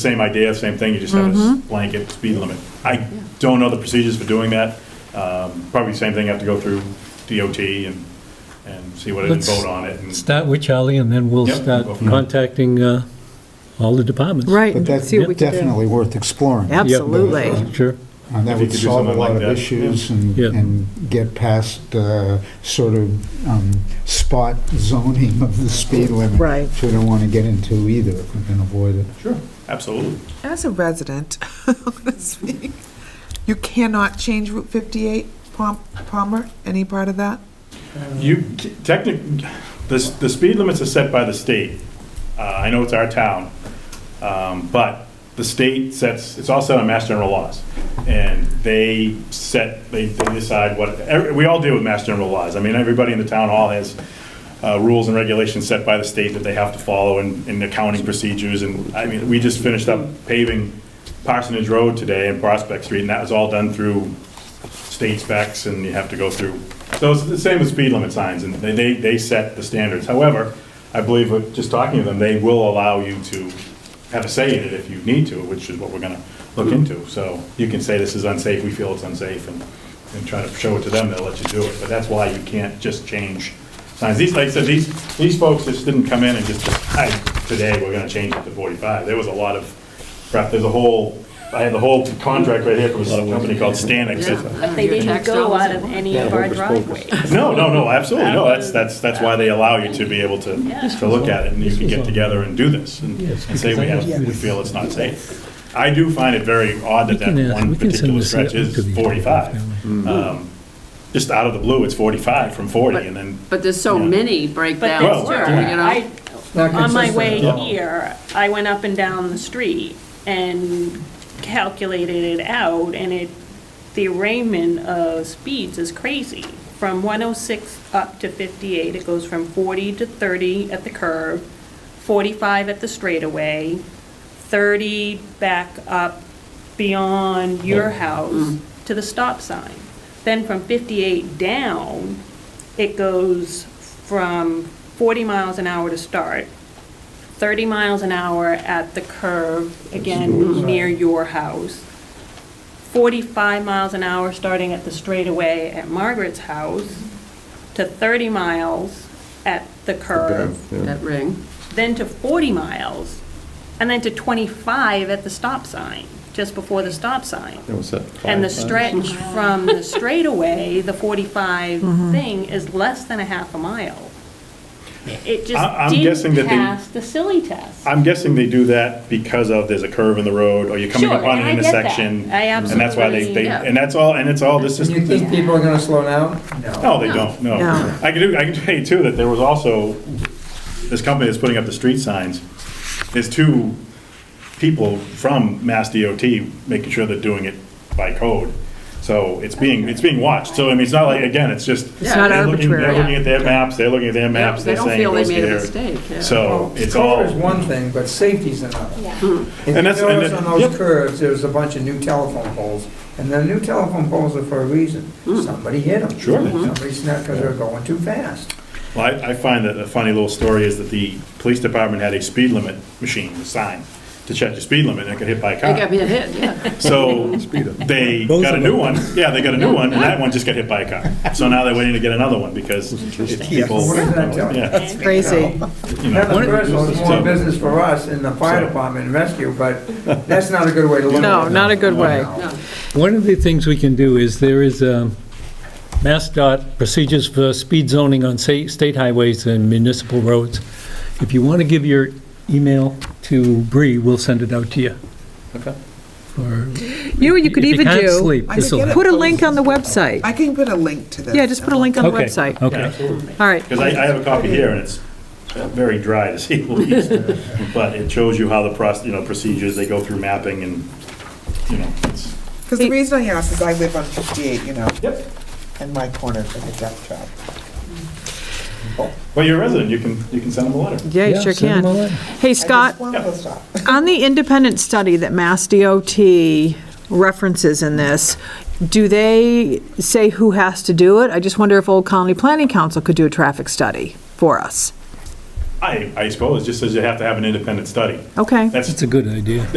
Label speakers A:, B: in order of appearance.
A: Same idea, same thing, you just have a blanket speed limit. I don't know the procedures for doing that. Um, Probably same thing, have to go through DOT and, and see what it is,
B: Let's-
A: vote on it. and-
B: Start with Charlie, and then we'll
A: Yep.
B: start
A: Go from there.
B: contacting uh, all the departments.
C: Right,
D: But
C: and
D: that's
C: see what we can do.
D: definitely worth exploring. Uh,
B: Yep.
C: Absolutely.
B: Sure.
D: And that
A: If you could
D: would
A: do
D: solve a
A: something like
D: lot of
A: that,
D: issues and,
B: Yeah.
D: and get past uh, sort of um, spot zoning of the speed limit.
C: Right.
D: Which we don't want to get into either, if we can avoid it.
A: Sure, absolutely.
E: As a resident, I'm gonna speak. you cannot change Route 58, Palm- Palmer, any part of that?
A: You, technically, the, the speed limits are set by the state. Uh, I know it's our town, um, but the state sets, it's all set on mass general laws. And they set, they they decide what, every- we all deal with mass general laws. I mean, everybody in the town hall has uh, rules and regulations set by the state that they have to follow and, and accounting procedures. And, I mean, we just finished up paving Parsonage Road today and Prospect Street, and that was all done through state specs and you have to go through. So it's the same with speed limit signs and they, they, they set the standards. However, I believe with just talking to them, they will allow you to have a say in it if you need to, which is what we're gonna look into. So you can say this is unsafe, we feel it's unsafe and, and try to show it to them, they'll let you do it. But that's why you can't just change signs. These, like I said, these, these folks just didn't come in and just, decide today we're gonna change it to forty-five. There was a lot of prep, there's a whole, I have the whole contract right here from a company called Stanex. It's-
F: But they didn't go out of any of our driveways.
A: no, no, no, absolutely, no, that's, that's, that's why they allow you to be able to, to look at it, and you can get together and do this, and
B: Yes,
A: and say we have, we feel it's not safe. I do find it very odd that
B: We can
A: that
B: ask-
A: one
B: we can send
A: particular
B: this uh,
A: stretch
B: up to the-
A: is forty-five. Um, Just out of the blue, it's forty-five from forty, and then,
G: But there's so
A: Yeah.
G: many break
F: But
G: down,
A: Well,
F: there
G: you
F: were,
G: know?
F: I, on my way
A: Yeah.
F: here, I went up and down the street and calculated it out, and it, the arraignment of speeds is crazy. From 106 up to 58, it goes from 40 to 30 at the curb, 45 at the straightaway, 30 back up beyond your house to the stop sign. Then from 58 down, it goes from 40 miles an hour to start, 30 miles an hour at the curve, again, near your house, 45 miles an hour starting at the straightaway at Margaret's house, to 30 miles at the curve,
G: That ring.
F: then to 40 miles, and then to 25 at the stop sign, just before the stop sign. And the stretch from the straightaway, the 45 thing, is less than a half a mile. It
A: I- I'm
F: just
A: guessing that
F: didn't
A: they-
F: pass the silly test.
A: I'm guessing they do that because of, there's a curve in the road, or you're coming
F: Sure,
A: upon an
F: and I get that.
A: intersection.
F: I
A: And that's why they,
F: absolutely-
A: they,
G: Yeah.
A: and that's all, and it's all, this is.
H: You think people are gonna slow down?
A: No, they don't, no.
C: No.
A: I can do, I can tell you too, that there was also, this company that's putting up the street signs, there's two people from Mass DOT making sure they're doing it by code. So it's being, it's being watched, so I mean, it's not like, again, it's just.
G: It's not
A: they're looking- They're
C: arbitrary.
A: looking at their maps, they're looking at their maps,
G: They
A: they're
G: don't
A: saying it
G: feel they
A: goes
G: made a
A: here.
G: mistake, yeah.
A: So
H: Well,
A: it's
H: Curve is
A: all,
H: one thing, but safety's another.
C: Hmm.
H: If you
A: And that's- and
H: notice
A: that-
H: on
A: yep.
H: those curves, there's a bunch of new telephone poles, and the new telephone poles are for a reason.
C: Hmm.
H: Somebody hit them.
A: Sure. Mhm.
H: Somebody snapped because they're going too fast.
A: Well, I, I find that a funny little story is that the police department had a speed limit machine, a sign, to check your speed limit, and it got hit by a
G: They
A: car.
G: got me a hit, yeah.
A: So they got a new one, yeah, they got a new one, and that one just got hit by a car. So now they're waiting to get another one because it's people.
H: What does that tell you?
A: Yeah,
F: And-
C: Crazy.
A: you know.
H: Another person was
A: So-
H: more business for us in the fire
A: So-
H: department and rescue, but that's not a good way to look at it.
C: No, not a good way.
G: No.
B: One of the things we can do is, there is um, MassDOT procedures for speed zoning on sa- state highways and municipal roads. If you want to give your email to Bree, we'll send it out to you. Okay.
C: You know what you could even
B: If you can't
C: do?
B: sleep,
E: I
B: this'll
E: could get
B: help.
C: Put a link on the website.
E: I can put a link to this.
C: Yeah, just put a link on the
B: Okay,
C: website.
A: Yeah,
B: Okay,
A: absolutely.
C: All right.
A: Because I, I have a copy here, and it's very dry to see the leaves, but it shows you how the process, you know, procedures, they go through mapping and, you know, it's.
E: Because the reason I ask is I live on 58, you know,
A: Yep.
E: in my corner of the death trap.
A: Well, you're a resident, you can, you can send them a letter.
C: Yeah, you
B: Yeah,
C: sure
B: send them a
C: can.
B: letter.
C: Hey,
E: I
C: Scott,
E: just wanted to stop.
C: on the independent study that Mass DOT references in this, do they say who has to do it? I just wonder if Old Colony Planning Council could do a traffic study for us.
A: I, I suppose, just as you have to have an independent study.
C: Okay.
A: That's
B: That's a good idea.